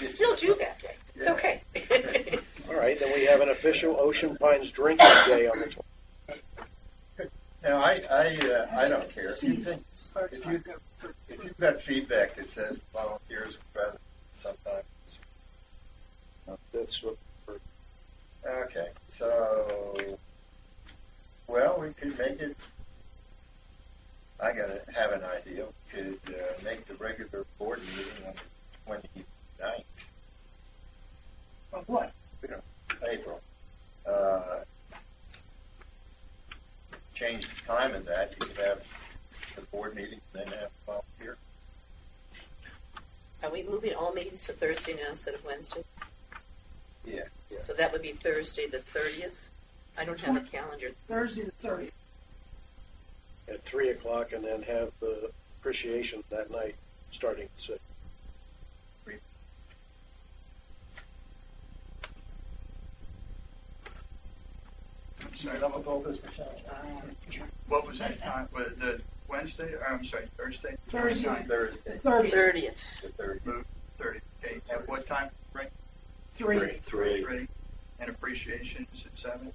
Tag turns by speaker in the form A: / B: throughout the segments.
A: You still do that day. It's okay.
B: All right, then we have an official Ocean Pines drinking day on the tw-
C: Now, I, I, uh, I don't care. If you think, if you, if you've got feedback that says volunteers are better sometimes, uh,
B: That's what,
C: okay, so, well, we could make it, I gotta have an idea. We Could, uh, make the regular board meeting on the 29th. On what? You know, April. Uh, change the time of that. You could have the board meeting, then have volunteer.
A: Are we moving all meetings to Thursday now instead of Wednesday?
C: Yeah.
A: So that would be Thursday, the thirtieth? I don't have a calendar.
D: Thursday the thirtieth.
B: at three o'clock and then have the appreciation that night, starting at six.
E: I'm sorry, I'm
C: with all this, Michelle?
A: Um,
E: what was that time? Was it the Wednesday, or I'm sorry, Thursday?
D: Thursday.
E: Twenty-ninth,
C: Thursday,
D: Thirtieth,
A: Thirtieth,
C: the 30th.
E: Thirty, okay, at what time? Right,
D: three.
B: Three.
E: ready? And appreciation is at seven?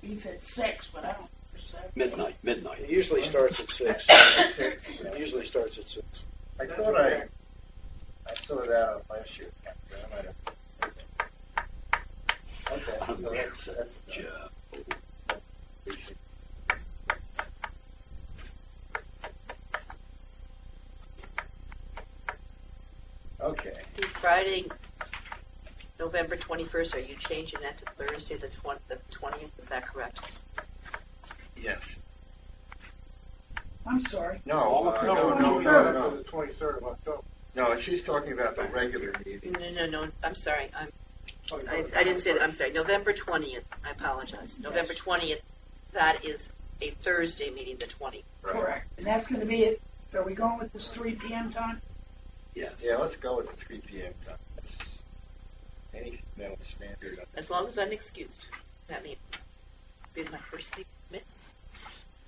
D: He said six, but I don't. understand.
F: Midnight, midnight.
B: It usually starts at six.
C: Six.
B: It usually starts at six.
C: I thought I, I saw that on last year. I might have. Okay, so that's, that's.
F: Yeah.
C: Okay,
A: the Friday, November twenty-first, are you changing that to Thursday, the twen- the twentieth? Is that correct?
C: yes.
D: I'm sorry.
C: No, uh, no, no, no, no.
B: Twenty-third of October.
C: No, she's talking about the regular meeting.
A: No, no, no, I'm sorry, I'm, I, I didn't say that, I'm sorry, November twentieth, I apologize. November twentieth, that is a Thursday meeting, the twentieth.
C: right?
D: Correct. And that's going to be it. Are we going with this three p.m. time?
F: Yes.
C: Yeah, let's go with the three P M time. That's Any metal standard.
A: As long as I'm excused, that means, be my first meeting minutes.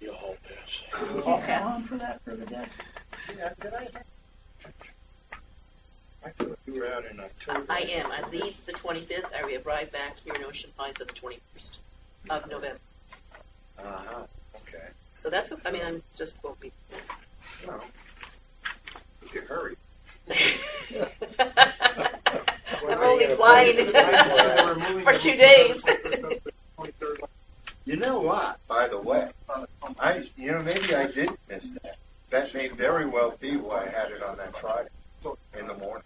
B: You'll all pass.
D: We can't go on for that for the day.
C: Yeah, did I? I thought you were out in October.
A: I am. I leave the 25th. I arrive back here in Ocean Pines on the 21st of November.
C: Uh-huh, okay.
A: So that's, I mean, I'm just won't be.
C: Well, you could hurry.
A: I'm only flying for two days.
C: You know what? By the way,
E: Uh, um,
C: I you know maybe I did miss that. That may very well be why I had it on that Friday in the morning.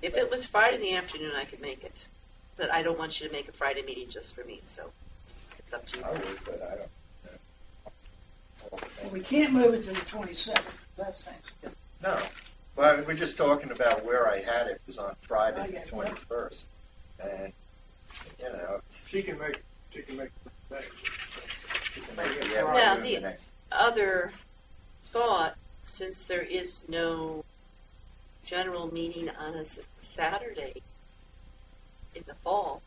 A: If it was Friday in the afternoon, I could make it. But I don't want you to make a Friday meeting just for me, so it's, it's up to you.
C: I would, but I don't. All the
D: Well,
C: same.
D: we can't move it to the twenty-seventh. That's Thanksgiving.
C: No, well, we're just talking about where I had it. It was on Friday,
D: Okay.
C: the twenty-first, and you know,
E: She can make, she can make.
C: maybe I
A: Now,
C: might do
A: the-
C: the next.
A: Other thought, since there is no general meeting on a s- Saturday in the fall,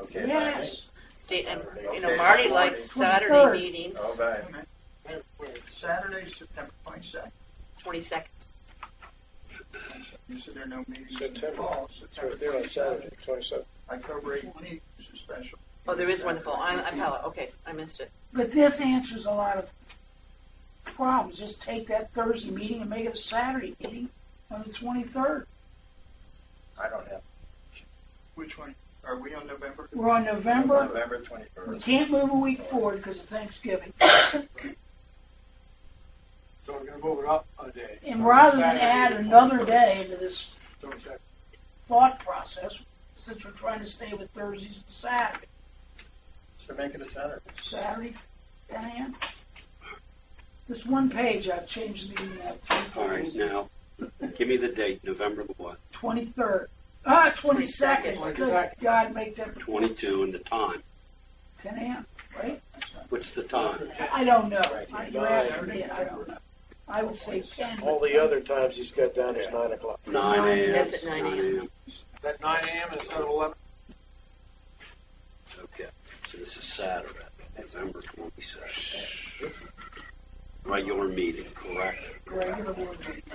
C: Okay.
D: Yes.
A: state, and, you
C: Okay,
A: know, Marty
C: Saturday.
A: likes Saturday
D: 23rd.
A: meetings,
C: All right.
E: Saturday, September twenty-second.
A: 22nd.
E: You said there are no meetings. in the
B: September.
E: fall,
B: It's right there on Saturday, twenty-seventh.
E: October eighteenth is a special.
A: Oh, there is one in the fall. I'm, I'm, hella- okay, I missed it.
D: But this answers a lot of problems. Just take that Thursday meeting and make it a Saturday meeting on the twenty-third.
C: I don't have
E: Which one? Are we on November?
D: We're on November.
C: November
D: We
C: twenty-first.
D: can't move a week forward because of Thanksgiving.
E: So we're gonna move it up a day.
D: And rather than add another day into this thought process, since we're trying to stay with Thursdays and Saturdays,
C: So make it a Saturday.
D: Saturday, 10 a.m. This one page I've changed the meeting at
F: All right, now, give me the date, November the what?
D: 23rd. Ah, 22nd. Good
E: 22nd.
D: God, make that
F: 22 and the time.
D: 10 a.m., right?
F: What's the time?
D: I don't know.
B: Right.
D: I- You asked me, I don't know. I would say 10.
B: All the other times he's got down is nine o'clock.
F: 9 a.m.
A: That's at 9 a.m.
E: That nine AM is at eleven?
F: Okay, so this is Saturday, November 22nd. Regular meeting, correct?
D: Regular board meeting.